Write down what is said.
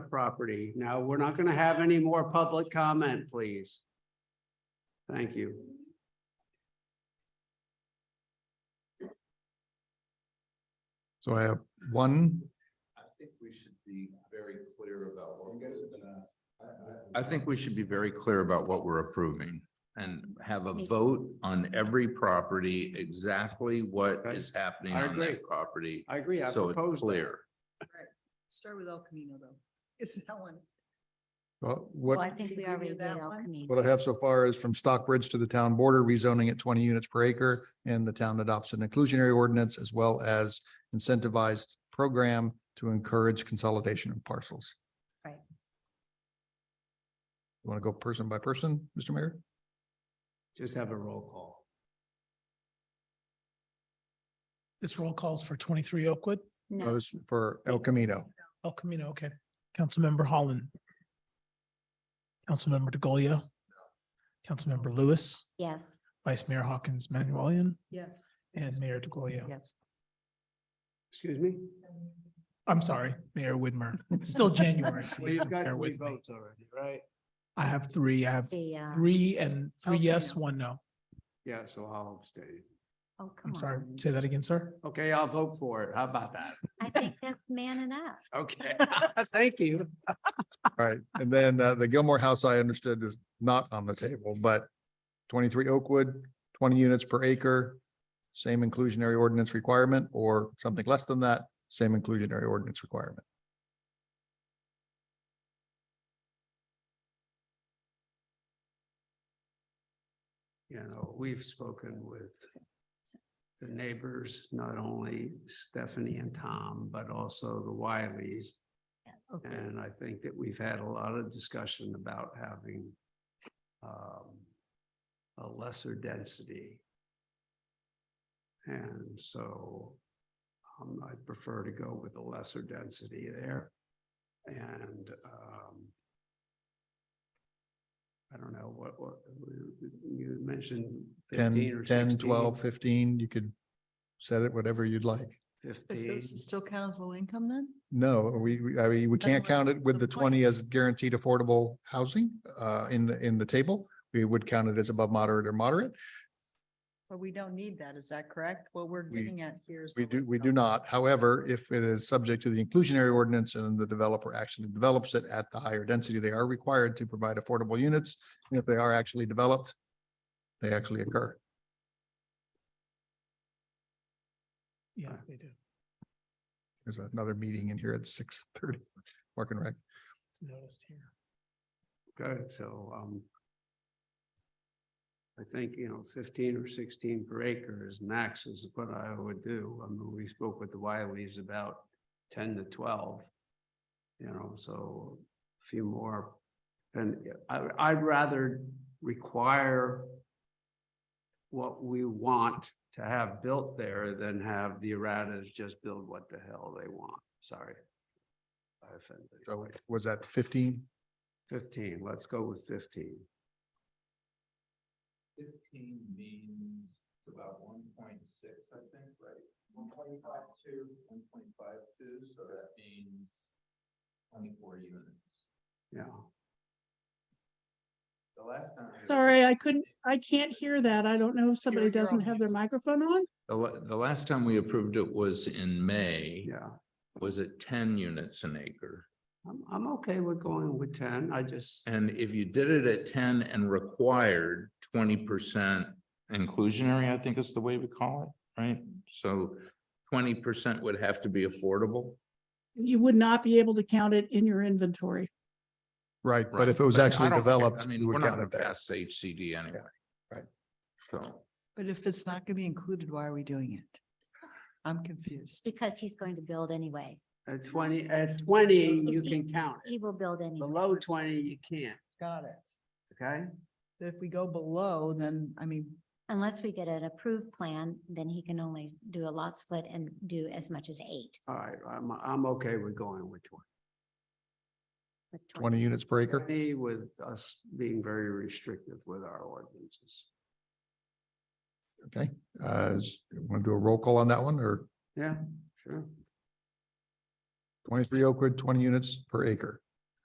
property. Now, we're not going to have any more public comment, please. Thank you. So I have one, I think we should be very clear about what. You guys have been. I think we should be very clear about what we're approving and have a vote on every property, exactly what Okay. is happening I on agree. that property. I agree. I So it's proposed that. clear. Start with El Camino though. It's that one. uh, Well, I what, think Did we we do already did that El one? Camino. what I have so far is from Stockbridge to the town border, rezoning at twenty units per acre. And the town adopts an inclusionary ordinance as well as incentivized program to encourage consolidation of parcels. Right. You Want to go person by person, Mr. Mayor? Just have a roll call. This roll calls for twenty-three Oakwood, That No, was for El Camino. El Camino, okay. Councilmember Holland. Councilmember DeGolia. Councilmember Lewis, yes, Vice Mayor Hawkins Manuelian, Yes. and Mayor DeGolia. Yes. Excuse me? I'm sorry, Mayor Widmer. It's Still January. so Well, you've got bear three with me. votes already, right? I have three, I have the, uh, three and three El yes, Camino. one no. Yeah, so I'll abstain. oh, come on. I'm sorry, say that again, sir. Okay, I'll vote for it. How about that? I think that's man enough. Okay, thank you. All right, and then uh, the Gilmore House, I understood, is not on the table, but twenty-three Oakwood, twenty units per acre, same inclusionary ordinance requirement, or something less than that, same inclusionary ordinance requirement. You know, we've spoken with the neighbors, not only Stephanie and Tom, but also the Wileys. And I think that we've had a lot of discussion about having um, a lesser density. And so um, I prefer to go with a lesser density there. And um, I don't know what, what, you mentioned fifteen Ten, or ten, 16, twelve, fifteen, you could set it whatever you'd like. Fifteen. This is still council income then? No, we, we- I mean, we can't Otherwise, count it what's with the the point? twenty as guaranteed affordable housing uh, in the, in the table. We would count it as above moderate or moderate. But we don't need that, is that correct? What we're We- getting at here is. We the do, we do not. However, if it is subject to the inclusionary ordinance and the developer actually develops it at the higher density, they are required to provide affordable units. And if they are actually developed, they actually occur. Yes, they do. There's another meeting in here at six thirty. Mark and Rec. It's noticed here. Okay, so, um, I think, you know, fifteen or sixteen per acre is max is what I would do. I mean, we spoke with the Wileys about ten to twelve. You know, so a few more, and I, I'd rather require what we want to have built there than have the erratas just build what the hell they want. Sorry. I offended. So was that fifteen? Fifteen, let's go with fifteen. Fifteen means about one point six, I think, right? One point five two. One point five two, so that means twenty-four units. Yeah, The last time. Sorry, I couldn't, I can't hear that. I don't know if somebody you're doesn't on have their mute. microphone on. The, la- the last time we approved it was in May. yeah. Was it ten units an acre? I'm, I'm okay with going with ten. I just, And if you did it at ten and required twenty percent inclusionary, I think is the way we call it, right? So twenty percent would have to be affordable. You would not be able to count it in your inventory. Right, but right? if it was But I actually don't care. developed. I you mean, would we're not count gonna it there. pass HCD anyway. right. So. But if it's not going to be included, why are we doing it? I'm confused. Because he's going to build anyway. at twenty, at twenty, you He's- can count it. He will build anyway. Below twenty, you can't, Got it. okay? If we go below, then, I mean, Unless we get an approved plan, then he can only do a lot split and do as much as eight. All right, I'm, I'm okay with going with twenty. with Twenty units per acre. Twenty with us being very restrictive with our ordinances. Okay, uh, want to do a roll call on that one or Yeah, sure. twenty-three Oakwood, twenty units per acre?